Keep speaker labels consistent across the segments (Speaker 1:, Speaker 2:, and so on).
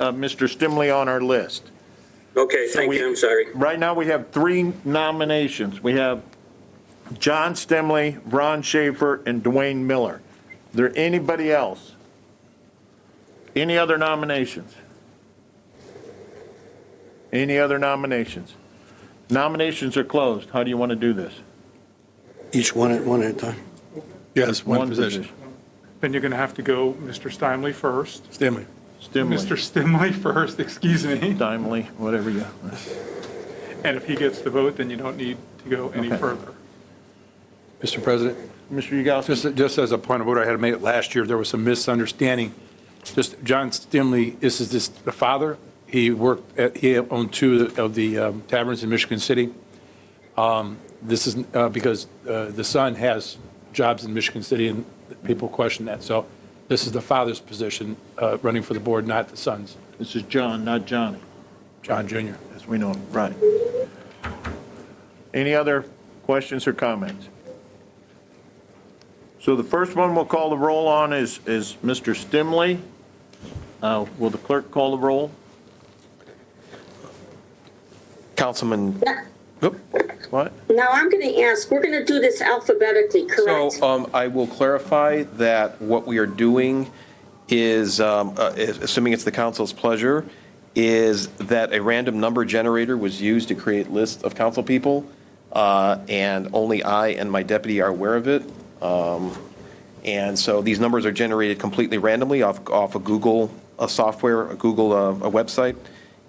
Speaker 1: uh, Mr. Stimley on our list.
Speaker 2: Okay,
Speaker 1: So
Speaker 2: thank
Speaker 1: we-
Speaker 2: you, I'm sorry.
Speaker 1: Right now, we have three nominations. We have John Stimley, Ron Schaefer, and Dwayne Miller. There anybody else? Any other nominations? Any other nominations? Nominations are closed. How do you want to do this?
Speaker 3: Each one at one at a time.
Speaker 4: Yes, one position.
Speaker 5: Then you're going to have to go Mr. Stimley first.
Speaker 4: Stanley.
Speaker 1: Stimley,
Speaker 5: Mr. Stimley first, excuse me.
Speaker 1: Stimley, whatever you,
Speaker 5: And if he gets the vote, then you don't need to go any
Speaker 1: Okay.
Speaker 5: further.
Speaker 4: Mr. President,
Speaker 1: Mr. Yagowski.
Speaker 4: just, just as a point of order, I had made it last year, there was some misunderstanding. Just John Stimley, this is this, the father, he worked, at- he owned two of the um, taverns in Michigan City. Um, This is uh, because uh, the son has jobs in Michigan City and people question that. So this is the father's position uh, running for the board, not the son's,
Speaker 1: This is John, not Johnny,
Speaker 4: John Jr.
Speaker 1: as we know him. Right. Any other questions or comments? So the first one we'll call the roll on is, is Mr. Stimley. Uh, Will the clerk call the roll?
Speaker 6: Councilman,
Speaker 1: What?
Speaker 7: Now, I'm going to ask, we're going to do this alphabetically,
Speaker 1: uh,
Speaker 6: so
Speaker 7: correct?
Speaker 6: um, I will clarify that what we are doing is, um, uh, is- assuming it's the council's pleasure, is that a random number generator was used to create lists of council people, uh, and only I and my deputy are aware of it. Um, And so these numbers are generated completely randomly off, off a Google, a software, a Google, uh, a website.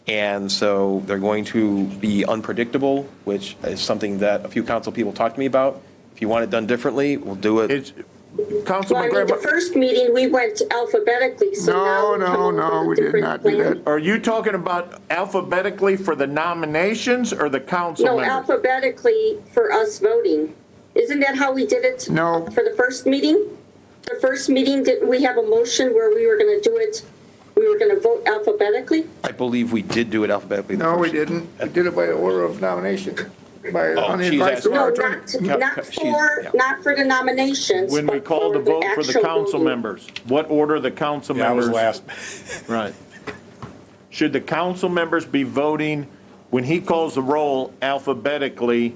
Speaker 6: And so they're going to be unpredictable, which is something that a few council people talked to me about. If you want it done differently, we'll do it.
Speaker 1: It's,
Speaker 7: Well, I
Speaker 1: Councilman
Speaker 7: mean, the
Speaker 1: Graham,
Speaker 7: first meeting, we went alphabetically, so now.
Speaker 8: No,
Speaker 7: we're
Speaker 8: no,
Speaker 7: coming up with
Speaker 8: no,
Speaker 7: a
Speaker 8: we did
Speaker 7: different
Speaker 8: not do
Speaker 7: plan.
Speaker 8: that.
Speaker 1: are you talking about alphabetically for the nominations or the council
Speaker 7: No,
Speaker 1: members?
Speaker 7: alphabetically for us voting. Isn't that how we did it?
Speaker 8: No.
Speaker 7: For the first meeting? The first meeting, didn't we have a motion where we were going to do it, we were going to vote alphabetically?
Speaker 6: I believe we did do it alphabetically. the
Speaker 8: No, we
Speaker 6: first-
Speaker 8: didn't. We did it by order of nomination, by, on the
Speaker 6: Oh, she's
Speaker 8: advice of
Speaker 6: asking-
Speaker 8: our
Speaker 7: No,
Speaker 8: attorney.
Speaker 7: not,
Speaker 6: No,
Speaker 7: not
Speaker 6: she's- yeah.
Speaker 7: for, not for the nominations.
Speaker 1: When we
Speaker 7: but
Speaker 1: call the vote for the
Speaker 7: actual
Speaker 1: council
Speaker 7: voting.
Speaker 1: members, what order the council members? Right. Should the council members be voting, when he calls the roll alphabetically,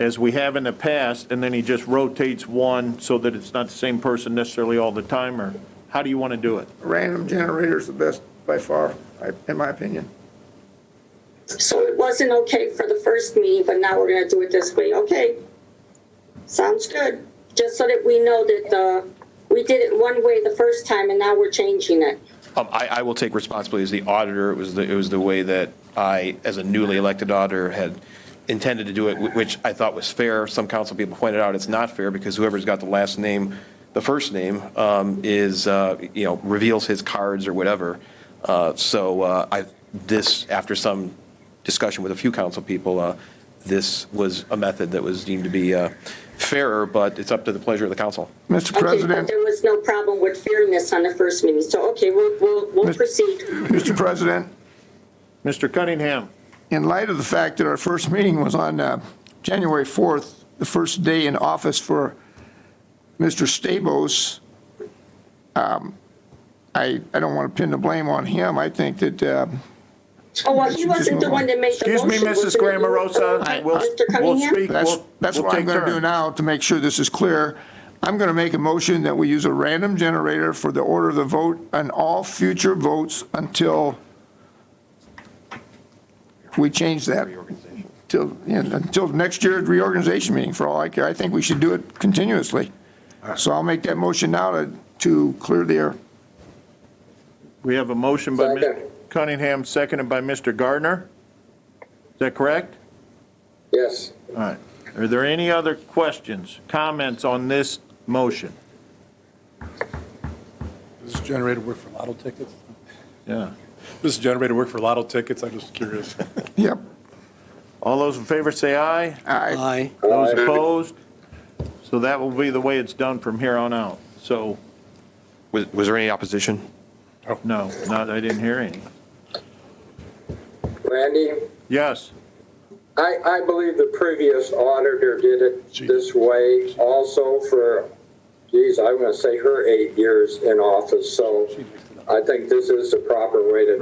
Speaker 1: as we have in the past, and then he just rotates one so that it's not the same person necessarily all the time, or how do you want to do it?
Speaker 8: Random generator's the best by far, I- in my opinion.
Speaker 7: So it wasn't okay for the first meeting, but now we're gonna do it this way, okay? Sounds good, just so that we know that the, we did it one way the first time and now we're changing it.
Speaker 6: Um, I, I will take responsibility as the auditor. It was the, it was the way that I, as a newly elected auditor, had intended to do it, wh- which I thought was fair. Some council people pointed out it's not fair because whoever's got the last name, the first name, um, is, uh, you know, reveals his cards or whatever. Uh, so, uh, I, this, after some discussion with a few council people, uh, this was a method that was deemed to be, uh, fairer, but it's up to the pleasure of the council.
Speaker 8: Mr.
Speaker 7: Okay, but
Speaker 8: President,
Speaker 7: there was no problem with fairness on the first meeting, so, okay, we'll, we'll, we'll
Speaker 8: Mis-
Speaker 7: proceed.
Speaker 8: Mr. President,
Speaker 1: Mr. Cunningham,
Speaker 8: in light of the fact that our first meeting was on uh, January 4th, the first day in office for Mr. Stabos, um, I, I don't want to pin the blame on him. I think that um,
Speaker 7: Oh, well, he wasn't the one that made the
Speaker 1: excuse
Speaker 7: motion.
Speaker 1: me, Mrs.
Speaker 7: wasn't it you?
Speaker 1: Grammerosa,
Speaker 7: Okay,
Speaker 1: we'll,
Speaker 7: Mr.
Speaker 1: we'll
Speaker 7: Cunningham?
Speaker 1: speak,
Speaker 8: That's,
Speaker 1: we'll,
Speaker 8: that's
Speaker 1: we'll
Speaker 8: what I'm
Speaker 1: take
Speaker 8: going to do
Speaker 1: turns.
Speaker 8: now to make sure this is clear. I'm going to make a motion that we use a random generator for the order of the vote on all future votes until we change that. Till, yeah, until next year's reorganization meeting, for all I care. I think we should do it continuously. So I'll make that motion now to, to clear the air.
Speaker 1: We have a motion by
Speaker 7: Second.
Speaker 1: Mr. Cunningham, seconded by Mr. Gardner. Is that correct?
Speaker 7: Yes.
Speaker 1: All right. Are there any other questions, comments on this motion?
Speaker 4: Does this generator work for lotto tickets?
Speaker 1: Yeah.
Speaker 4: Does this generator work for lotto tickets? I'm just curious.
Speaker 8: Yep.
Speaker 1: All those in favor say aye.
Speaker 8: Aye.
Speaker 3: Aye.
Speaker 1: Those
Speaker 9: Uh,
Speaker 1: opposed? So that will be the way it's done from here on out. So,
Speaker 6: Was, was there any opposition?
Speaker 1: no, not, I didn't hear any.
Speaker 9: Randy,
Speaker 1: Yes,
Speaker 9: I, I believe the previous auditor did it this way also for, geez, I'm going to say her eight years in office, so I think this is the proper way to